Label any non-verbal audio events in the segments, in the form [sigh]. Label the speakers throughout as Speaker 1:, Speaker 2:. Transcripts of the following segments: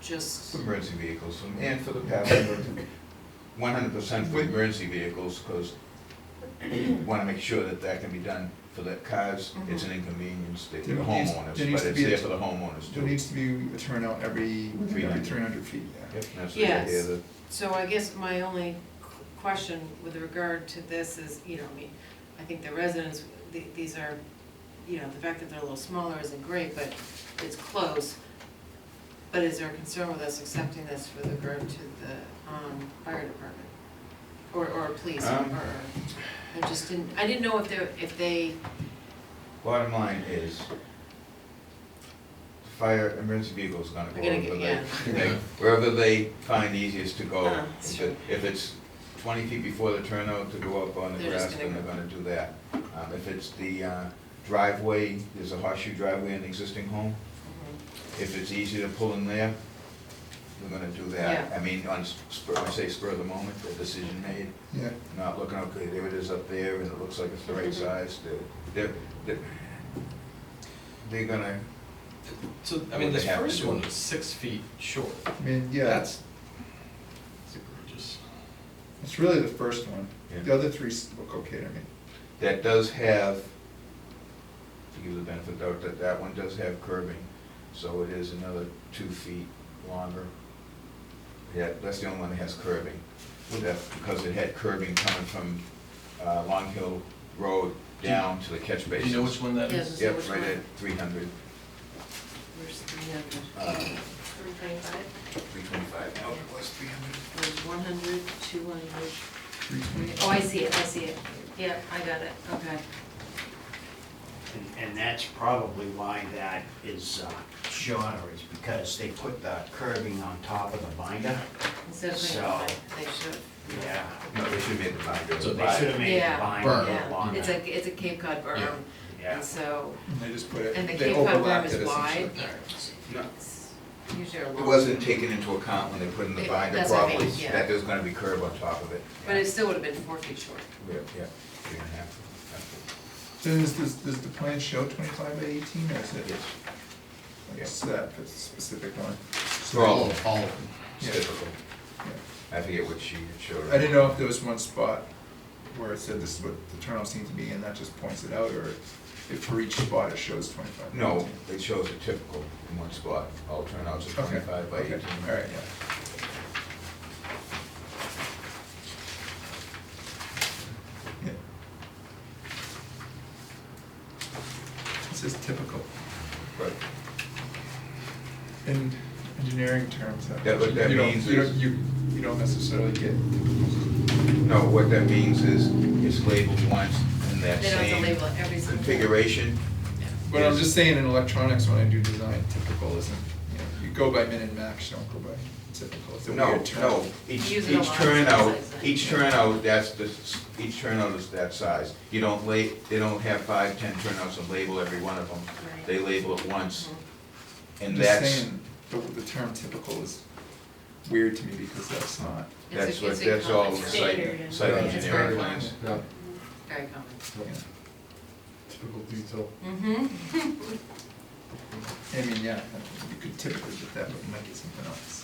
Speaker 1: just,
Speaker 2: For emergency vehicles, and- and for the passenger, one hundred percent for emergency vehicles, because you wanna make sure that that can be done for the cars, it's an inconvenience to the
Speaker 3: Mm-hmm. There needs-
Speaker 2: homeowners,
Speaker 3: there needs
Speaker 2: but
Speaker 3: to
Speaker 2: it's
Speaker 3: be a-
Speaker 2: there for the homeowners
Speaker 3: There
Speaker 2: too.
Speaker 3: needs to be a turnout every,
Speaker 2: Three
Speaker 3: every
Speaker 2: hundred.
Speaker 3: three hundred feet, yeah.
Speaker 2: Yep, that's the
Speaker 1: Yes.
Speaker 2: idea, that
Speaker 1: so I guess my only qu- question with regard to this is, you know, I mean, I think the residents, the- these are, you know, the fact that they're a little smaller isn't great, but it's close. But is there a concern with us accepting this with regard to the, um, fire department? Or, or police, or,
Speaker 2: Um.
Speaker 1: or, I just didn't, I didn't know if they're, if they,
Speaker 2: Bottom line is, fire, emergency vehicle's gonna go
Speaker 1: They're gonna
Speaker 2: wherever
Speaker 1: get-
Speaker 2: they, they- wherever they find easiest to go.
Speaker 1: Uh,
Speaker 2: If
Speaker 1: sure.
Speaker 2: it- If it's twenty feet before the turnout to go up on the
Speaker 1: They're just
Speaker 2: grass,
Speaker 1: gonna
Speaker 2: then they're
Speaker 1: go.
Speaker 2: gonna do that. Um, if it's the uh, driveway, there's a horseshoe driveway in the existing home, if it's easy to pull in there, they're gonna do that. I mean, on spur, I say spur of the moment, the decision made,
Speaker 3: Yeah,
Speaker 2: not looking, okay, there it is up there, and it looks like it's the right
Speaker 1: Mhm.
Speaker 2: size, they're, they're- they're, they're gonna,
Speaker 4: So, I mean,
Speaker 2: What
Speaker 4: the
Speaker 2: they have to
Speaker 4: first
Speaker 2: do.
Speaker 4: one is six feet short.
Speaker 3: I mean, yeah,
Speaker 4: That's, that's egregious.
Speaker 3: it's really the first one.
Speaker 2: Yeah.
Speaker 3: The other three s- look okay to me.
Speaker 2: that does have, to give the benefit of the doubt, that that one does have curbing, so it is another two feet longer. Yeah, that's the only one that has curbing, that, because it had curbing coming from, uh, Long Hill Road down to the catch
Speaker 4: Do
Speaker 2: basin.
Speaker 4: you know which one that
Speaker 1: Yeah,
Speaker 4: is?
Speaker 1: so which
Speaker 2: Yep, right
Speaker 1: one?
Speaker 2: at three hundred,
Speaker 1: where's three hundred?
Speaker 2: uh,
Speaker 1: Three twenty-five?
Speaker 2: three twenty-five,
Speaker 4: Oh,
Speaker 2: now it was three hundred.
Speaker 1: There's one hundred, two hundred,
Speaker 3: Three twenty.
Speaker 1: Oh, I see it, I see it. Yeah, I got it, okay.
Speaker 5: And, and that's probably why that is uh, shorter, is because they put the curbing on top of the binder.
Speaker 1: Instead of
Speaker 5: So-
Speaker 1: twenty-five, they should.
Speaker 5: Yeah.
Speaker 2: No, they should be at the back there.
Speaker 4: So
Speaker 5: They should have made
Speaker 1: Yeah.
Speaker 5: the binder a
Speaker 3: Berm.
Speaker 5: little
Speaker 1: Yeah,
Speaker 5: longer.
Speaker 1: it's a, it's a Cape Cod berm,
Speaker 2: Yeah.
Speaker 5: Yeah.
Speaker 1: and so,
Speaker 3: And They just put it,
Speaker 1: and the
Speaker 3: they
Speaker 1: Cape Cod berm
Speaker 3: overlapped it
Speaker 1: is
Speaker 3: essentially.
Speaker 1: wide.
Speaker 2: No.
Speaker 1: It's Usually a long.
Speaker 2: It wasn't taken into account when they put in the
Speaker 1: It-
Speaker 2: binder
Speaker 1: that's what I mean,
Speaker 2: properly,
Speaker 1: yeah.
Speaker 2: that there's gonna be curb on top of it.
Speaker 1: But it still would have been four feet short.
Speaker 2: Yeah, yeah, three and a half, that's
Speaker 3: Then is this, does the plan show twenty-five by eighteen or is
Speaker 2: it.
Speaker 3: it?
Speaker 2: Yes,
Speaker 3: It's that specific one.
Speaker 2: For all of
Speaker 3: all of
Speaker 2: it's
Speaker 3: Yeah,
Speaker 2: typical.
Speaker 3: yeah.
Speaker 2: I forget what she showed.
Speaker 3: I didn't know if there was one spot where it said this is what the turnout seemed to be and that just points it out, or if for each spot it shows twenty-five by
Speaker 2: No,
Speaker 3: 18.
Speaker 2: it shows a typical in one spot, all turnouts are
Speaker 3: Okay,
Speaker 2: twenty-five by
Speaker 3: okay,
Speaker 2: eighteen.
Speaker 3: all right, yeah. Yeah. This is typical,
Speaker 2: But
Speaker 3: in engineering terms, that,
Speaker 2: Yeah, but that
Speaker 3: you don't,
Speaker 2: means
Speaker 3: you don't,
Speaker 2: is-
Speaker 3: you, you don't necessarily get.
Speaker 2: No, what that means is, it's labeled once in that
Speaker 1: They don't have to
Speaker 2: same
Speaker 1: label it every single.
Speaker 2: configuration.
Speaker 3: But I'm
Speaker 2: Yes.
Speaker 3: just saying, in electronics, when I do design, typical isn't, you know, you go by min and max, you don't go by typical, it's a
Speaker 2: No,
Speaker 3: weird term.
Speaker 2: no, each,
Speaker 1: Use it a
Speaker 2: each
Speaker 1: lot.
Speaker 2: turnout,
Speaker 1: It's like-
Speaker 2: each turnout, that's the, s- each turnout is that size. You don't la, they don't have five, ten turnouts and label every one of them.
Speaker 1: Right.
Speaker 2: They label it once,
Speaker 1: Mhm.
Speaker 2: and
Speaker 3: just
Speaker 2: that's,
Speaker 3: saying, The, the term typical is weird to me because that's not,
Speaker 1: It's a-
Speaker 2: that's what,
Speaker 1: it's a
Speaker 2: that's all
Speaker 1: common standard
Speaker 2: site,
Speaker 1: and-
Speaker 2: site
Speaker 1: Yeah, it's very
Speaker 2: engineering
Speaker 1: common,
Speaker 2: plans.
Speaker 6: Yeah,
Speaker 1: Very common.
Speaker 3: you know.
Speaker 6: typical detail.
Speaker 1: Mm-hmm. [laughs]
Speaker 3: I mean, yeah, you could typically get that, but you might get something else.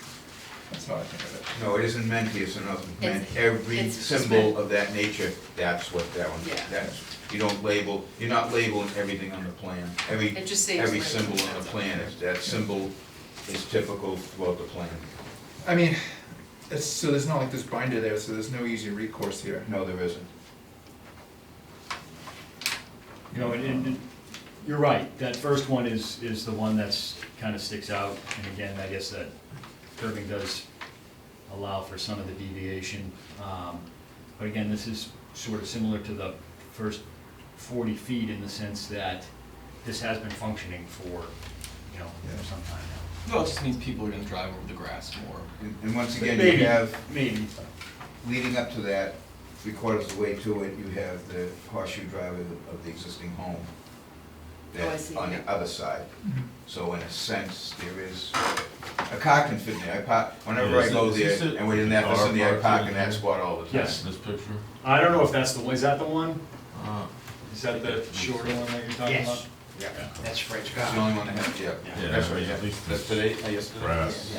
Speaker 3: That's how I think of it.
Speaker 2: No, it isn't meant here, so nothing meant,
Speaker 1: It's-
Speaker 2: every
Speaker 1: it's just meant-
Speaker 2: symbol of that nature, that's what that one,
Speaker 1: Yeah.
Speaker 2: that's, you don't label, you're not labeling everything on the plan. Every,
Speaker 1: It just saves
Speaker 2: every
Speaker 1: money.
Speaker 2: symbol on the plan, is that symbol is typical throughout the plan.
Speaker 3: I mean, it's, so there's not like this binder there, so there's no easy recourse here.
Speaker 2: No, there isn't.
Speaker 7: You know, and, and you're right, that first one is, is the one that's, kind of sticks out, and again, I guess that curving does allow for some of the deviation. Um, But again, this is sort of similar to the first forty feet in the sense that this has been functioning for, you know, for some time now.
Speaker 4: No, it just means people are gonna drive over the grass more.
Speaker 2: And and once again,
Speaker 7: Maybe,
Speaker 2: you have,
Speaker 7: Maybe,
Speaker 2: leading up to that, three quarters of the way to it, you have the horseshoe drive of the- of the existing home.
Speaker 1: Oh, I
Speaker 2: that-
Speaker 1: see.
Speaker 2: On the other side.
Speaker 3: Mm-hmm.
Speaker 2: So in a sense, there is, a car can fit in there, I park, whenever I
Speaker 6: Yeah,
Speaker 2: go
Speaker 6: is it-
Speaker 2: there,
Speaker 6: is this
Speaker 2: and within that
Speaker 6: car
Speaker 2: vicinity, I
Speaker 6: parked
Speaker 2: park
Speaker 6: in
Speaker 2: in that
Speaker 6: there?
Speaker 2: spot all the time.
Speaker 7: Yes.
Speaker 6: This picture?
Speaker 7: I don't know if that's the, one. is that the one?
Speaker 2: Ah.
Speaker 6: Uh,
Speaker 7: Is that the shorter one that you're talking about?
Speaker 5: Yes, yeah, that's French
Speaker 2: It's
Speaker 5: Scott.
Speaker 2: the only one that has, yeah,
Speaker 5: Yeah.
Speaker 2: that's right,
Speaker 6: Yeah,
Speaker 2: yeah,
Speaker 6: at least
Speaker 2: that's today, uh, yesterday.
Speaker 6: grass.
Speaker 2: Yeah.